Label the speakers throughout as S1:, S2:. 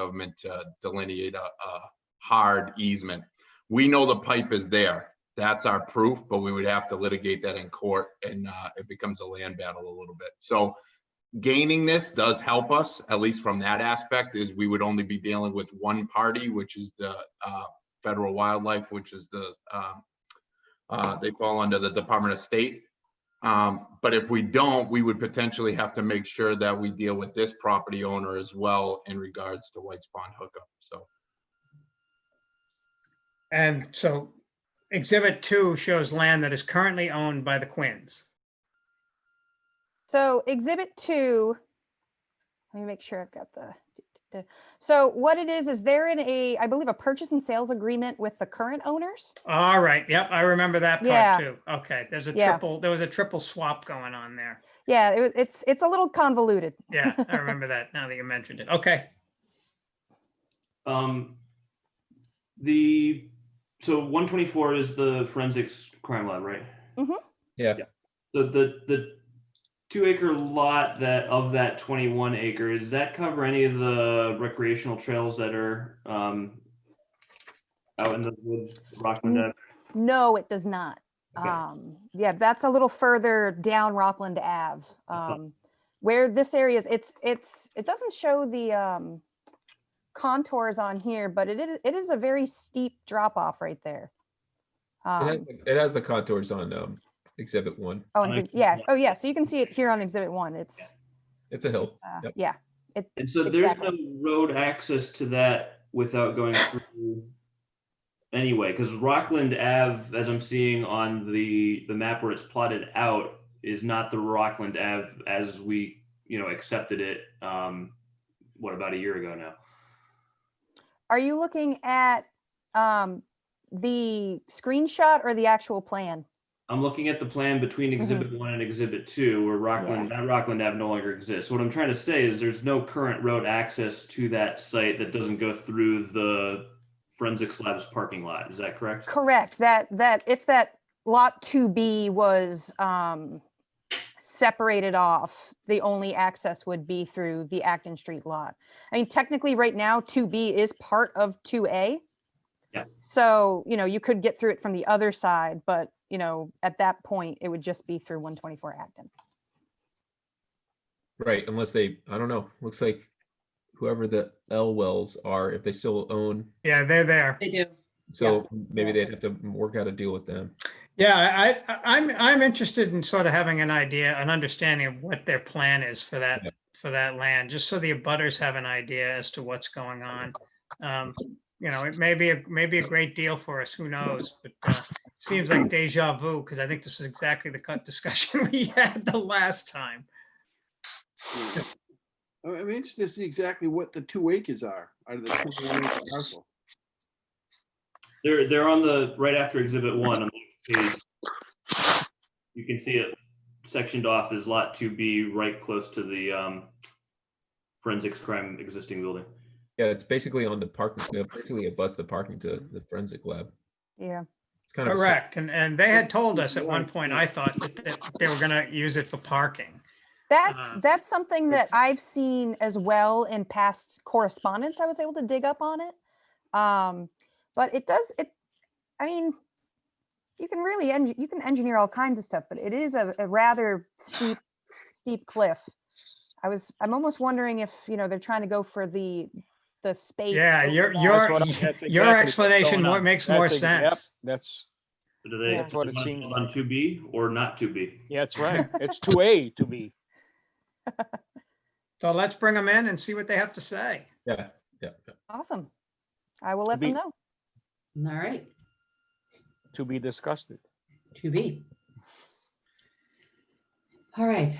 S1: government to delineate a, a hard easement. We know the pipe is there. That's our proof, but we would have to litigate that in court and uh, it becomes a land battle a little bit. So gaining this does help us, at least from that aspect, is we would only be dealing with one party, which is the uh, federal wildlife, which is the, uh, uh, they fall under the Department of State. Um, But if we don't, we would potentially have to make sure that we deal with this property owner as well in regards to White's Pond hookup. So
S2: And so exhibit two shows land that is currently owned by the Quins.
S3: So exhibit two, let me make sure I've got the, the- so what it is, is they're in a, I believe, a purchase and sales agreement with the current owners?
S2: All right, yep, I remember that
S3: Yeah.
S2: part too. Okay, there's a
S3: Yeah.
S2: triple, there was a triple swap going on there.
S3: Yeah, it, wa- it's, it's a little convoluted.
S2: Yeah, I remember that now that you mentioned it. Okay,
S4: Um, the, so one twenty-four is the forensics crime lab, right?
S3: Mhm.
S5: Yeah.
S4: The, the, the two acre lot that, of that twenty-one acre, does that cover any of the recreational trails that are, um, out in the woods, Rockland Ave?
S3: No, it does not.
S4: Okay.
S3: Um, yeah, that's a little further down Rockland Ave. Um, where this area is, it's, it's, it doesn't show the, um, contours on here, but it is, it is a very steep drop off right there.
S5: It
S3: Um,
S5: has- It has the contours on um, exhibit one.
S3: Oh,
S4: On
S3: and
S4: exhibit
S3: yes,
S4: one.
S3: oh, yeah, so you can see it here on exhibit one, it's,
S5: It's a hill.
S3: it's, uh,
S5: Oh, Yep.
S3: yeah,
S4: And so there's no
S3: Exactly.
S4: road access to that without going through anyway, because Rockland Ave, as I'm seeing on the, the map where it's plotted out, is not the Rockland Ave as we, you know, accepted it, um, what, about a year ago now?
S3: are you looking at, um, the screenshot or the actual plan?
S4: I'm looking at the plan between exhibit one and exhibit two where Rockland, that Rockland Ave no longer exists. What I'm trying to say is there's no current road access to that site that doesn't go through the forensics labs parking lot. Is that correct?
S3: Correct, that, that, if that lot two B was, um, separated off, the only access would be through the Acton Street lot. I mean, technically, right now, two B is part of two A.
S4: Yeah.
S3: So, you know, you could get through it from the other side, but, you know, at that point, it would just be through one twenty-four Acton.
S5: Right, unless they, I don't know, looks like whoever the L Wells are, if they still own,
S2: yeah, they're there.
S6: They do.
S5: so maybe
S3: Yeah.
S5: they'd have to work out a deal with them.
S2: Yeah, I, I, I'm, I'm interested in sort of having an idea, an understanding of what their plan is for that,
S5: Yeah.
S2: for that land, just so the abutters have an idea as to what's going on. Um, You know, it may be, a maybe a great deal for us, who knows, but uh, it seems like deja vu, because I think this is exactly the cut discussion we had the last time.
S7: Yeah. I- I'm interested to see exactly what the two acres are, out of the 21 acre parcel.
S4: They're, they're on the, right after exhibit one on the next page. You can see it sectioned off as lot two B, right close to the um, forensics crime existing building.
S5: Yeah, it's basically on the parking, uh, basically it butts the parking to the forensic lab.
S3: Yeah.
S5: It's kind of a sl-
S2: Correct, and, and they had told us at one
S7: Yeah.
S2: point, I thought, that that they were gonna use it for parking. Uh,
S3: That's, that's something that
S2: it's-
S3: I've seen as well in past correspondence. I was able to dig up on it. Um, but it does, it, I mean, you can really, eng- you can engineer all kinds of stuff, but it is a, a rather steep, steep cliff. I was, I'm almost wondering if, you know, they're trying to go for the, the space.
S2: Yeah,
S3: over
S2: your,
S3: that.
S2: your,
S8: what I- that's exactly
S2: your
S8: what's
S2: explanation
S8: going
S2: more-
S8: on.
S2: makes more
S8: That's ex- yep,
S2: sense.
S8: That's,
S4: So Do they
S3: Yeah.
S4: do
S8: That's
S4: they
S8: what
S4: want
S8: it
S4: to
S8: seems
S4: build on two B or not two B?
S8: yeah, that's right. It's two A to be.
S2: So let's bring them in and see what they have to say.
S5: Yeah, yeah. yeah.
S3: Awesome. I will let them
S8: be-
S3: know.
S6: All right,
S8: to be discussed.
S6: to be. All right,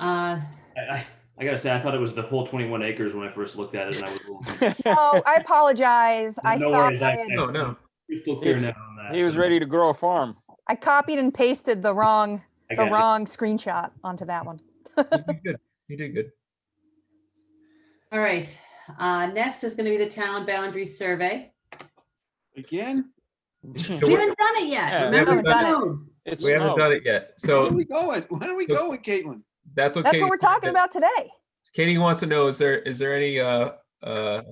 S6: uh,
S4: I, I, I gotta say, I thought it was the whole twenty-one acres when I first looked at it and I was a little
S3: Oh, I apologize. I
S4: No
S3: thought
S4: worries,
S3: I
S4: I-
S3: had-
S4: I-
S5: No, no,
S4: crystal clear now on that.
S8: He was
S4: so
S8: ready to grow a farm.
S3: I copied and pasted the wrong,
S4: I
S3: the
S4: got you.
S3: wrong screenshot onto that one.
S5: you did good. You did good.
S6: all right, uh, next is gonna be the town boundary survey.
S7: Again?
S5: So
S6: We
S5: we're-
S6: haven't done it yet,
S8: Yeah, we
S6: remember?
S5: haven't done
S3: it.
S6: No.
S8: It's
S5: We
S3: Oh.
S5: haven't
S8: no.
S5: done it yet,
S7: Where
S5: so
S7: are we going? Where are we
S5: So-
S7: going, Caitlin?
S5: that's what.
S3: That's
S5: Katie
S3: what we're
S5: wanted
S3: talking
S5: to-
S3: about today.
S5: Katie wants to know, is there, is there any, uh, uh,